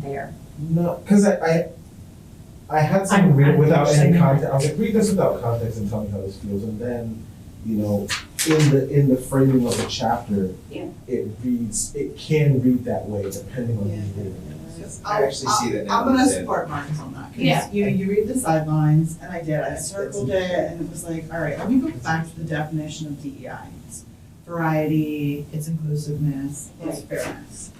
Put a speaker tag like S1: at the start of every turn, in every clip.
S1: there.
S2: No, because I, I, I had some
S1: I'm-
S2: read
S1: I'm
S2: without any
S1: interested.
S2: context, I was like, read this without context and tell me how this feels, and then, you know, in the, in the framing of the chapter,
S1: Yeah.
S2: it reads, it can read that way depending on who you read it.
S3: I actually see that now.
S4: I'm gonna support Marcus on that,
S1: Yeah.
S4: cause you, you read the sidelines, and I did, I circled it, and it was like, alright, let me go back to the definition of DEI. It's Variety, it's inclusiveness, it's fairness.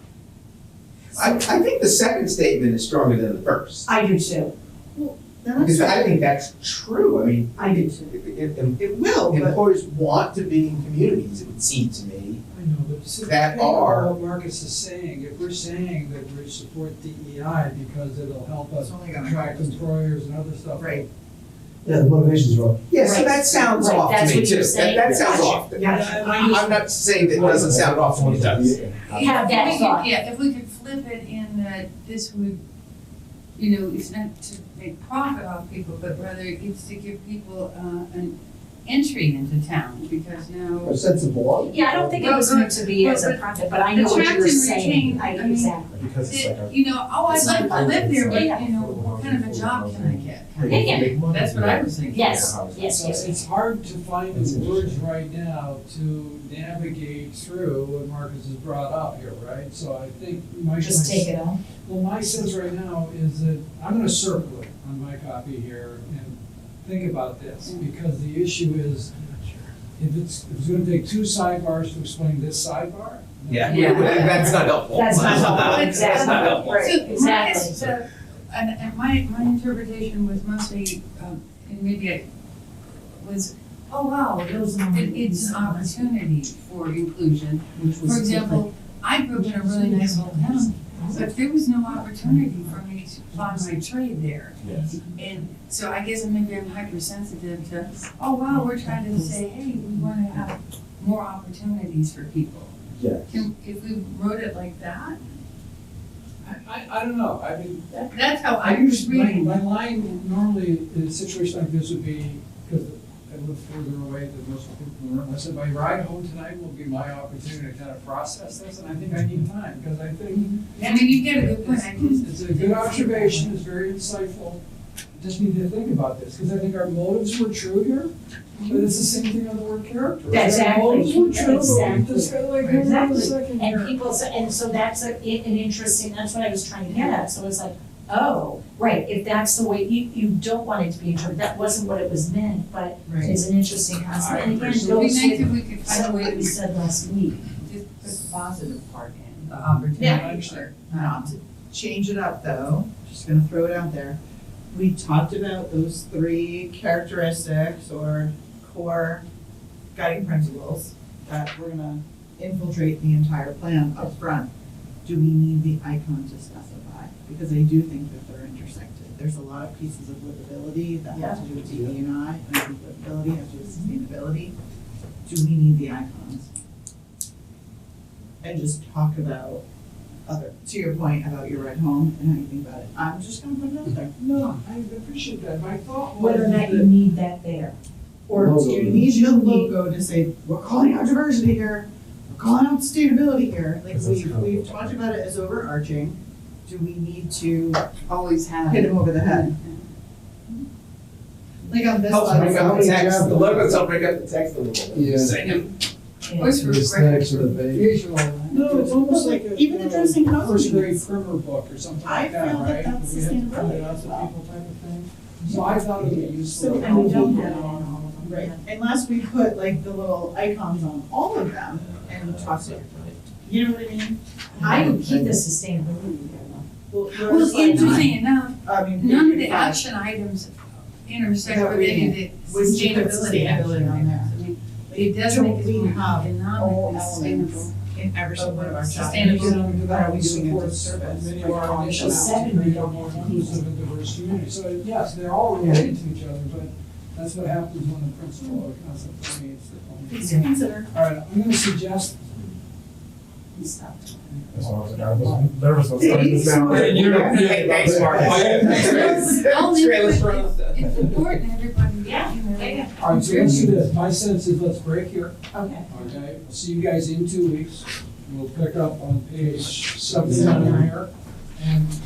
S3: I, I think the second statement is stronger than the first.
S1: I do too,
S4: Then
S3: Because
S4: I-
S3: I think that's true, I mean,
S1: I do too.
S3: it, it, em-
S4: It will, but.
S3: employers want to be in communities, it would seem to me.
S5: I know, but see,
S3: That
S5: I think
S3: are-
S5: what Marcus is saying, if we're saying that we support DEI because it'll help us
S4: only
S5: attract employers and other stuff.
S4: Right.
S6: Yeah, the motivation's wrong.
S3: Yeah, so
S1: Right.
S3: that sounds
S1: Right,
S3: off to
S1: that's
S3: me
S1: what
S3: too,
S1: you're
S3: that,
S1: saying.
S3: that sounds
S1: Gotcha.
S3: off. to me.
S1: Yeah.
S3: I- I'm not saying that it doesn't sound off to me, it does.
S1: Have
S7: If we
S1: that
S7: could-
S1: thought.
S7: Yeah, if we could flip it in that this would, you know, it's not to make profit off people, but rather it's to give people, uh, an entry into town, because now.
S6: A sense of belonging.
S1: Yeah, I don't think it
S7: Well,
S1: was
S7: no,
S1: meant to be
S7: well,
S1: as a
S7: but
S1: project, but I know what
S7: attract
S1: you were
S7: and
S1: saying,
S7: retain,
S1: I,
S7: I mean,
S1: exactly.
S2: Because it's like
S7: That,
S2: a.
S7: you know, oh, I'd
S2: It's
S7: like to
S2: like-
S7: live there,
S2: Yeah.
S7: but, you know, what kind of a job can I get?
S1: Yeah, yeah.
S7: That's what I was thinking.
S1: Yes, yes, yes,
S5: So It's
S1: yes.
S5: hard to find the words right now to navigate through what Marcus has brought up here, right? So I think my.
S1: Just take it out.
S5: Well, my sense right now is that, I'm gonna circle it on my copy here and think about this, because the issue is, if it's, if it's gonna take two sidebars to explain this sidebar.
S3: Yeah,
S7: Yeah.
S3: that's not helpful.
S1: That's not helpful,
S7: That's not
S1: exactly,
S3: helpful.
S1: right,
S7: So my,
S1: exactly.
S7: it's, uh, and, and my, my interpretation was mostly, um, and maybe I, was, oh, wow, those, it, it's an opportunity for inclusion. For example, I grew up in a really nice little town, but there was no opportunity for me to apply my trade there.
S2: Yes.
S7: And so I guess maybe I'm hypersensitive to, oh, wow, we're trying to say, hey, we wanna have more opportunities for people.
S2: Yeah.
S7: Can, if we wrote it like that,
S5: I, I, I don't know, I mean,
S7: that's how
S5: I
S7: I was
S5: usually, my,
S7: reading.
S5: my line normally, in a situation like this would be, because I live further away than most people in the room, I said, my ride home tonight will be my opportunity to kind of process this, and I think I need time, because I think
S7: I mean, you get a good point, I just.
S5: it's a good observation, it's very insightful. Just need to think about this, because I think our motives were true here, but it's the same thing on the word character. right?
S1: Exactly.
S5: Our motives were true, but we
S1: Exactly.
S5: just got like, hang on a
S1: Exactly.
S5: second here.
S1: And people, so- and so that's a, i- an interesting, that's what I was trying to get at, so it's like, oh, right, if that's the way, you, you don't want it to be interpreted, that wasn't what it was meant, but it's an interesting concept, and again,
S7: It'd be
S1: goes
S7: nice
S1: with
S7: if we could find a
S1: some
S7: way
S1: what
S7: to
S1: we
S7: just
S1: said last week.
S7: put the positive part in, the opportunity.
S4: Yeah, I understand. Not Um, to change it up though, just gonna throw it out there. We talked about those three characteristics or core guiding principles that we're gonna infiltrate the entire plan up front. Do we need the icon to specify? Because I do think that they're intersected. There's a lot of pieces of livability that have to do with DE and I, and I think livability has to do with sustainability. Do we need the icons? And just talk about other, to your point about your ride home and how you think about it, I'm just gonna put it out there.
S5: No, I appreciate that, my thought was.
S1: Whether or not
S5: that-
S1: you need that there,
S4: Or do you need your logo to say, we're calling out diversity here, we're calling out sustainability here, like
S2: That's
S4: we,
S2: how-
S4: we've talked about it as overarching. Do we need to
S7: Always have.
S4: hit them over the head? Like on this
S3: Helps bring up
S4: one,
S3: the text, the logos help bring up the text a little bit.
S6: Yeah.
S3: Same.
S1: yeah.
S7: Always
S6: Just
S7: regret.
S6: next to the page.
S7: Visual.
S5: No, it's almost like a.
S4: Even
S5: you know,
S4: addressing
S5: First grade
S4: companies.
S5: primer book or
S4: I
S5: something like that,
S4: feel that
S5: right?
S4: that's
S5: We have to print
S4: sustainability
S5: it out
S4: as
S5: to
S4: well.
S5: people type of thing. So I thought it would be useful.
S4: So, and we don't
S5: helpful,
S4: have it
S5: you know,
S4: Right, unless we put like the little icons on all of them and toss it, you know what I mean?
S1: I would keep the sustainability there, though.
S4: Well,
S7: Well, it's interesting enough,
S4: I mean.
S7: none of the
S4: fine.
S7: action items intersect
S4: That
S7: with
S4: we-
S7: any of the
S4: we should put
S7: sustainability
S4: sustainability
S7: action
S4: on
S7: items. I mean, It does
S4: Don't
S7: make it
S4: we
S7: more
S4: have all
S7: economically sustainable.
S4: elements in every single one of our
S5: And
S7: Sustainable.
S4: chapters?
S5: if you don't do that,
S4: Are we
S5: we
S4: doing it
S5: support
S4: disservice?
S5: many of
S4: Like,
S5: our initiatives to
S1: seven, we
S5: create a
S1: don't
S5: more
S1: have
S5: inclusive and diverse community. So yes, they're all related to each other, but that's what happens when the principle or concept permeates the whole.
S4: Please consider.
S5: All right, I'm gonna suggest,
S2: That's why I was like, I was nervous about starting this now.
S3: Thanks, Mark.
S7: Only
S3: Trailers for
S7: if
S3: other-
S7: It's important, everybody, yeah, you know.
S1: Yeah,
S5: all right, so let's do this. My sense is let's break here.
S1: Okay.
S5: Okay, we'll see you guys in two weeks. We'll pick up on page seventy-nine here. And